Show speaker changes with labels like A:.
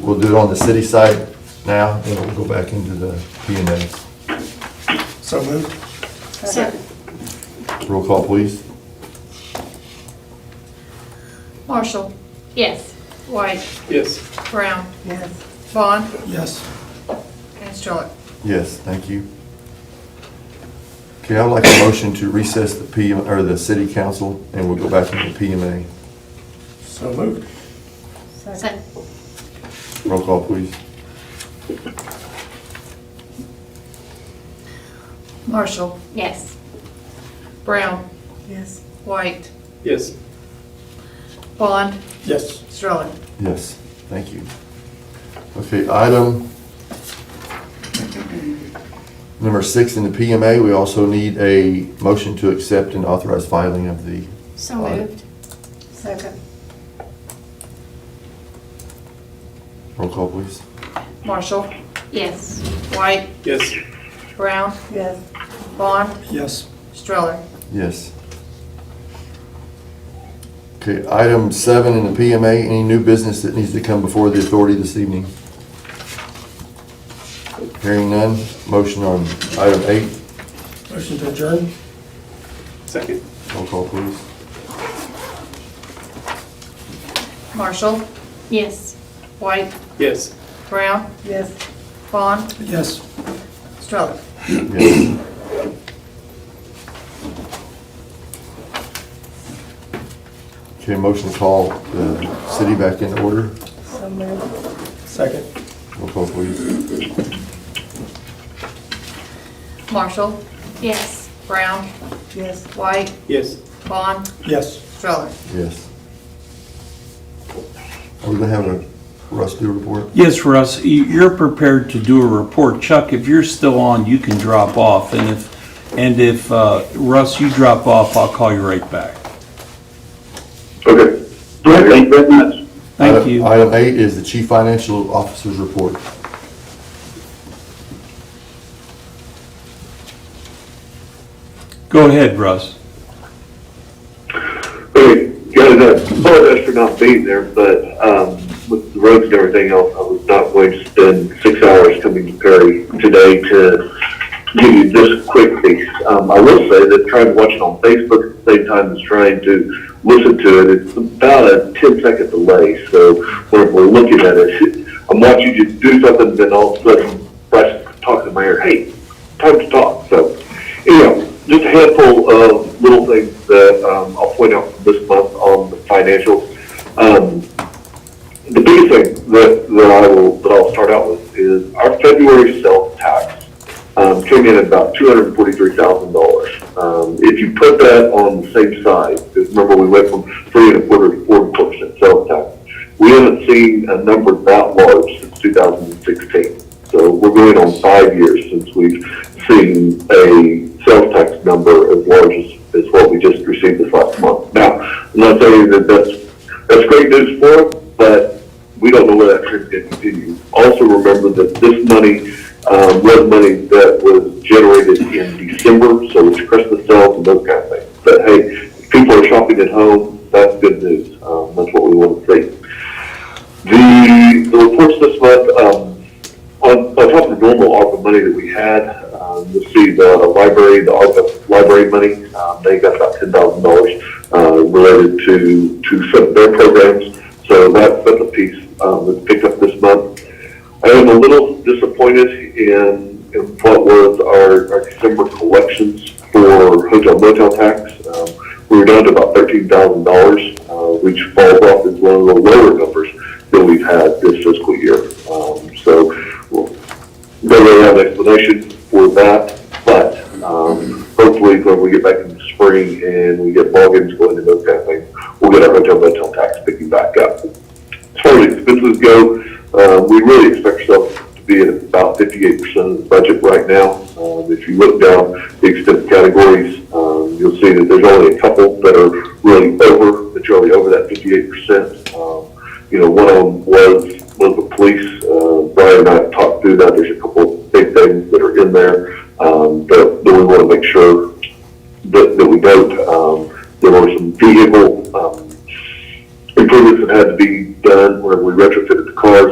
A: We'll do it on the city side now, and we'll go back into the P and A.
B: So moved.
C: Second.
A: Roll call, please.
C: Marshall.
D: Yes.
C: White.
B: Yes.
C: Brown. Yes. Vaughn.
B: Yes.
C: And Stroller.
A: Yes, thank you. Okay, I'd like a motion to recess the P, or the city council, and we'll go back into P and A.
B: So moved.
D: Second.
A: Roll call, please.
C: Marshall.
D: Yes.
C: Brown. Yes. White.
B: Yes.
C: Vaughn.
B: Yes.
C: Stroller.
A: Yes, thank you. Okay, item number six in the PMA, we also need a motion to accept and authorize filing of the
D: So
A: Audit.
D: moved.
C: Second.
A: roll call, please.
C: Marshall.
D: Yes.
C: White.
B: Yes.
C: Brown. Yes. Vaughn.
B: Yes.
C: Stroller.
A: Yes. Okay, item seven in the PMA, any new business that needs to come before the authority this evening? Hearing none, motion on item eight,
B: Motion to adjourn? Second.
A: roll call, please.
C: Marshall.
D: Yes.
C: White.
B: Yes.
C: Brown. Yes. Vaughn.
B: Yes.
C: Stroller.
A: Yes. Okay, motion to call the city back in order.
B: Second.
A: Roll call, please.
C: Marshall.
D: Yes.
C: Brown. Yes. White.
B: Yes.
C: Vaughn.
B: Yes.
C: Stroller.
A: Yes. Are we gonna have a Russ do report?
E: Yes, Russ, y- you're prepared to do a report. Chuck, if you're still on, you can drop off, and if, and if, uh, Russ, you drop off, I'll call you right back.
F: Okay. Thank you very much.
E: Thank
A: Item-
E: you.
A: Item eight is the chief financial officer's report.
E: Go ahead, Russ.
F: Okay, guys, I apologize for not being there, but, um, with the roads and everything else, I was not going to spend six hours coming to Perry today to give you this quick piece. Um, I will say that trying to watch it on Facebook at the same time as trying to listen to it, it's about a 10 second delay, so when we're looking at it, I'm watching you do something, then all of a sudden, Bryce talks in my ear, hey, time to talk, so. Anyhow, just a handful of little things that um, I'll point out from this month on the financials. Um, the biggest thing that, that I will, that I'll start out with is our February sales tax, um, came in at about two hundred and forty-three thousand dollars. Um, if you put that on the same side, because remember we went from three and a quarter to four percent sales tax, we haven't seen a number that large since two thousand and sixteen. So we're going on five years since we've seen a sales tax number as large as, as what we just received this last month. Now, I'm not saying that that's that's great news for us, but we don't know where that trend's going to continue. Also remember that this money, um, was money that was generated in December, so it's Christmas sales and those kind of things. But hey, if people are shopping at home, that's good news. Um, that's what we want to see. The, the reports this month, um, on, on top of the normal ARPA money that we had, um, you'll see the library, the ARPA library money, um, they got about ten thousand dollars, uh, related to, to some of their programs. So that's, that's a piece, um, that's picked up this month. I am a little disappointed in, in what was our, our December collections for hotel motel tax. Um, We were down to about thirteen thousand dollars, uh, which falls off as one of the lower numbers that we've had this fiscal year. Um, so, well, don't really have an explanation for that, but, um, hopefully when we get back in the spring and we get ballgames going and those kind of things, we'll get our hotel motel tax picking back up. As far as expenses go, uh, we really expect ourselves to be at about fifty-eight percent of the budget right now. Um, if you look down the expense categories, um, you'll see that there's only a couple that are really over, that you're already over that fifty-eight percent. Um, you know, one of Uh, them was Um, um,